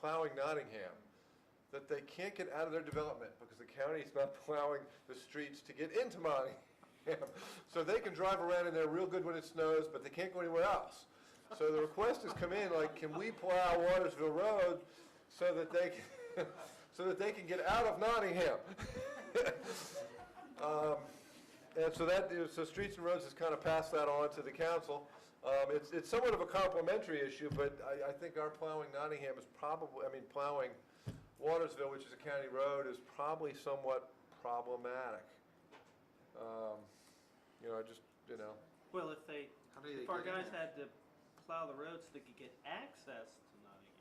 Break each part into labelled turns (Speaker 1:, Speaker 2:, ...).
Speaker 1: plowing Nottingham, that they can't get out of their development because the county is not plowing the streets to get into Nottingham. So they can drive around in there real good when it snows, but they can't go anywhere else. So the request has come in, like, can we plow Watersville Road so that they, can- so that they can get out of Nottingham? Um, And so that, is- so Streets and Roads has kind of passed that on to the council. Um, It's, it's somewhat of a complementary issue, but I, I think our plowing Nottingham is probably, I mean, plowing Watersville, which is a county road, is probably somewhat problematic. Um, You know, I just, you know,
Speaker 2: Well, if they,
Speaker 3: How do they
Speaker 2: if our
Speaker 3: get in
Speaker 2: guys
Speaker 3: there?
Speaker 2: had to plow the road so they could get access to Nottingham.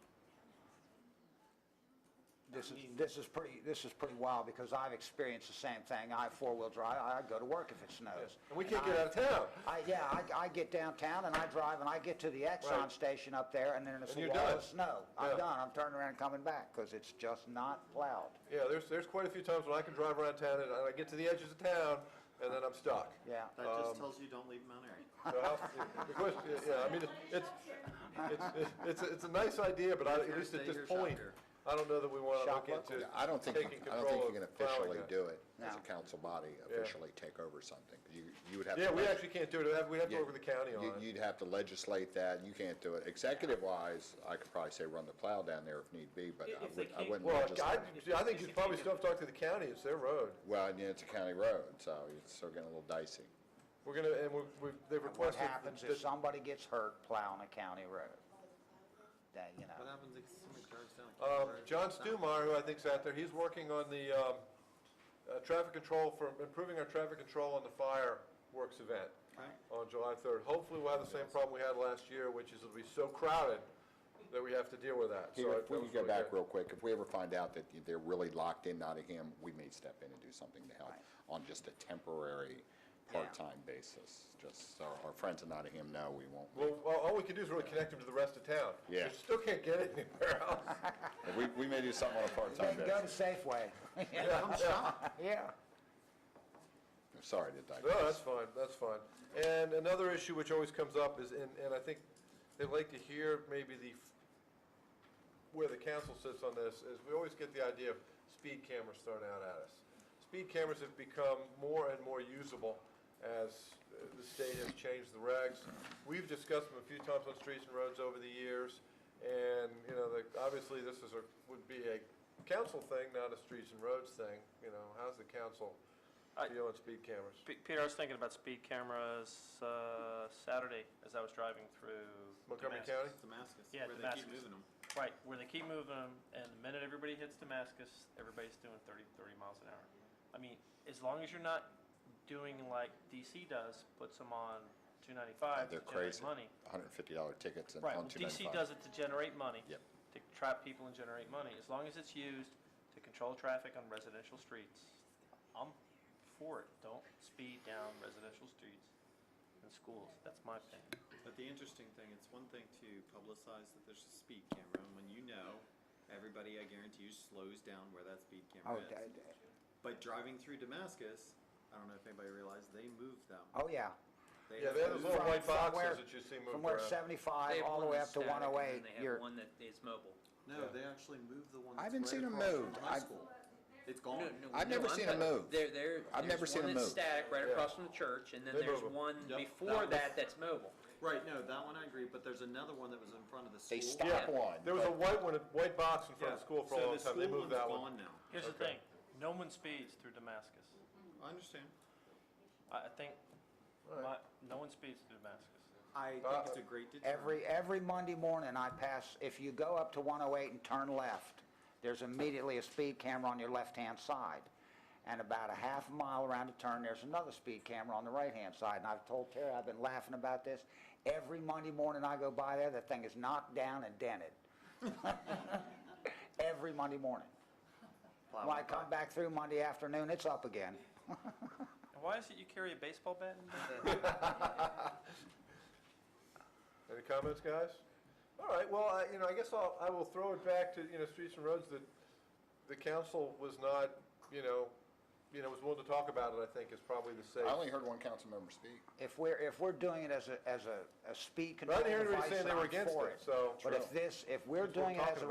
Speaker 4: This is, this is pretty, this is pretty wild, because I've experienced the same thing. I have four-wheel drive, I I go to work if it snows.
Speaker 1: and we can't get out of town.
Speaker 4: I, yeah, I, I get downtown and I drive and I get to the
Speaker 1: Right.
Speaker 4: Exxon station up there and then it's
Speaker 1: And
Speaker 4: a
Speaker 1: you're
Speaker 4: wall
Speaker 1: done.
Speaker 4: of snow.
Speaker 1: Yeah.
Speaker 4: I'm done, I'm turning around and coming back, because it's just not plowed.
Speaker 1: Yeah, there's, there's quite a few times when I can drive around town and I get to the edges of town and then I'm stuck.
Speaker 4: Yeah,
Speaker 3: That just tells you don't leave Mount Airy.
Speaker 1: So how- the question- yeah, I mean, it's, it's, it's, it's a nice idea, but I, at least at
Speaker 3: Here's
Speaker 1: this
Speaker 3: your shop
Speaker 1: point,
Speaker 3: here.
Speaker 1: I don't know that we want to look
Speaker 4: Shop
Speaker 1: into.
Speaker 5: Yeah, I don't think,
Speaker 1: taking
Speaker 5: I don't think you
Speaker 1: control
Speaker 5: can
Speaker 1: of plowing
Speaker 5: officially
Speaker 1: that.
Speaker 5: do it as a
Speaker 4: No.
Speaker 5: council body, officially take over something. You, you would have. to
Speaker 1: Yeah, we
Speaker 5: leg-
Speaker 1: actually can't do it, We'd have- we'd have to work with the county
Speaker 5: you-
Speaker 1: on it.
Speaker 5: You'd have to legislate that, you can't do it. Executive wise, I could probably say run the plow down there if need be, but
Speaker 2: If-
Speaker 5: I
Speaker 2: if they
Speaker 5: wouldn't, I
Speaker 2: can't-
Speaker 5: wouldn't
Speaker 1: Well, I,
Speaker 5: legislate.
Speaker 2: just-
Speaker 1: I think you probably still have to talk to the county, it's their road.
Speaker 5: Well, and it's a county road, so it's still getting a little dicey.
Speaker 1: We're gonna, and we, we, they've
Speaker 4: what
Speaker 1: requested.
Speaker 4: happens
Speaker 1: that-
Speaker 4: if somebody gets hurt plowing a county road? That, you
Speaker 3: What
Speaker 4: know,
Speaker 3: happens if somebody drives down? a
Speaker 1: Um,
Speaker 3: road?
Speaker 1: John Stumeyer, who I think's out there, he's working on the, um, uh, traffic control for, improving our traffic control on the fireworks event
Speaker 3: Okay.
Speaker 1: on July third. Hopefully, we'll have the same problem we had last year, which is it'll be so crowded that we have to deal with that. So
Speaker 5: Here,
Speaker 1: I-
Speaker 5: if we
Speaker 1: that
Speaker 5: could
Speaker 1: was
Speaker 5: go
Speaker 1: really
Speaker 5: back
Speaker 1: good.
Speaker 5: real quick, if we ever find out that they're really locked in Nottingham, we may step in and do something to help on just a temporary, part-time basis, just so our friends in Nottingham know we won't.
Speaker 1: Well, well, all we can do is really connect them to the rest of town.
Speaker 5: Yeah.
Speaker 1: They still can't get it anywhere else.
Speaker 5: We, we may do something on a
Speaker 4: they
Speaker 5: part-time
Speaker 4: can go to
Speaker 5: basis.
Speaker 4: Safeway,
Speaker 1: Yeah, yeah.
Speaker 4: yeah.
Speaker 5: I'm sorry to digress.
Speaker 1: No, that's fine, that's fine. And another issue which always comes up is, and, and I think they'd like to hear maybe the, f- where the council sits on this, is we always get the idea of speed cameras thrown out at us. Speed cameras have become more and more usable as uh, the state has changed the regs. We've discussed them a few times on streets and roads over the years, and, you know, the, obviously, this is a, would be a council thing, not a streets and roads thing, you know, how's the council
Speaker 6: I-
Speaker 1: feel on speed cameras?
Speaker 6: P- Peter, I was thinking about speed cameras uh, Saturday as I was driving through.
Speaker 1: Montgomery County?
Speaker 6: Damascus.
Speaker 3: Damascus,
Speaker 6: Yeah,
Speaker 3: where they keep
Speaker 6: Damascus.
Speaker 3: moving them.
Speaker 6: Right, where they keep moving 'em, and the minute everybody hits Damascus, everybody's doing 30, 30 miles an hour. I mean, as long as you're not doing like DC does, puts them on 295
Speaker 5: They're
Speaker 6: to generate
Speaker 5: crazy.
Speaker 6: money.
Speaker 5: $150 tickets and
Speaker 6: Right,
Speaker 5: on
Speaker 6: well, DC
Speaker 5: 295.
Speaker 6: does it to generate money.
Speaker 5: Yep.
Speaker 6: To trap people and generate money. As long as it's used to control traffic on residential streets, I'm for it. Don't speed down residential streets and schools. That's my thing.
Speaker 3: But the interesting thing, it's one thing to publicize that there's a speed camera, and when you know, everybody, I guarantee you, slows down where that speed
Speaker 4: Oh,
Speaker 3: camera
Speaker 4: d-
Speaker 3: is.
Speaker 4: d-
Speaker 3: But driving through Damascus, I don't know if anybody realized, they moved them.
Speaker 4: oh, yeah.
Speaker 1: Yeah, they have those little
Speaker 4: From-
Speaker 1: white
Speaker 4: from
Speaker 1: boxes
Speaker 4: where-
Speaker 1: that you see
Speaker 4: From
Speaker 1: moved
Speaker 4: where
Speaker 1: around.
Speaker 7: They
Speaker 4: 75
Speaker 7: have
Speaker 4: all the
Speaker 7: one
Speaker 4: way up
Speaker 7: that's
Speaker 4: to
Speaker 7: static, and then
Speaker 4: 108,
Speaker 7: They have
Speaker 4: you're,
Speaker 7: one that is mobile.
Speaker 3: No, they actually moved the one.
Speaker 5: I
Speaker 3: that's right
Speaker 5: haven't seen 'em
Speaker 3: across from
Speaker 5: moved.
Speaker 3: high
Speaker 5: I've-
Speaker 3: school. It's
Speaker 7: No,
Speaker 3: gone.
Speaker 7: no,
Speaker 5: Oh. I've
Speaker 7: no,
Speaker 5: never
Speaker 7: I'm
Speaker 5: seen 'em
Speaker 7: talking-
Speaker 5: move.
Speaker 7: There, there.
Speaker 5: I've never
Speaker 7: there's
Speaker 5: seen 'em
Speaker 7: one that's
Speaker 5: move.
Speaker 7: Static right
Speaker 1: Yeah.
Speaker 7: across from the church, and then
Speaker 1: They
Speaker 7: there's
Speaker 1: move 'em.
Speaker 7: one
Speaker 3: Yep,
Speaker 7: before
Speaker 3: that
Speaker 7: that that's mobile.
Speaker 3: Right, no, that one I agree, but there's another one that was in front of the school.
Speaker 5: They stop
Speaker 7: Yeah.
Speaker 5: one.
Speaker 1: There was a
Speaker 5: but-
Speaker 1: white one, a white box in front of the school for a
Speaker 3: So
Speaker 1: long
Speaker 3: the
Speaker 1: time, they
Speaker 3: school
Speaker 1: moved that
Speaker 3: one's
Speaker 1: one.
Speaker 3: Gone now.
Speaker 6: Here's the
Speaker 1: Okay.
Speaker 6: thing, no one speeds through Damascus.
Speaker 3: I understand.
Speaker 6: I, I think, my, no one speeds through Damascus.
Speaker 3: I think
Speaker 1: Uh,
Speaker 3: it's a great deterrent.
Speaker 4: every, every Monday morning I pass, if you go up to 108 and turn left, there's immediately a speed camera on your left-hand side. And about a half mile around the turn, there's another speed camera on the right-hand side. And I've told Terry, I've been laughing about this. Every Monday morning I go by there, the thing is knocked down and dented. Every Monday morning. When I come back through Monday afternoon, it's up again.
Speaker 6: And why is it you carry a baseball bat in there?
Speaker 1: Any comments, guys? All right, well, I, you know, I guess I'll, I will throw it back to, you know, Streets and Roads, that the council was not, you know, you know, was willing to talk about it, I think, is probably the safe.
Speaker 5: I only heard one council member speak.
Speaker 4: If we're, if we're doing it as a, as a, a speed
Speaker 1: But I
Speaker 4: control
Speaker 1: didn't hear
Speaker 4: device,
Speaker 1: anybody saying they were
Speaker 4: I'm
Speaker 1: against
Speaker 4: for
Speaker 1: it,
Speaker 4: it.
Speaker 1: so-
Speaker 4: But if this, if we're
Speaker 1: That's what we're
Speaker 4: doing it as
Speaker 1: talking
Speaker 4: a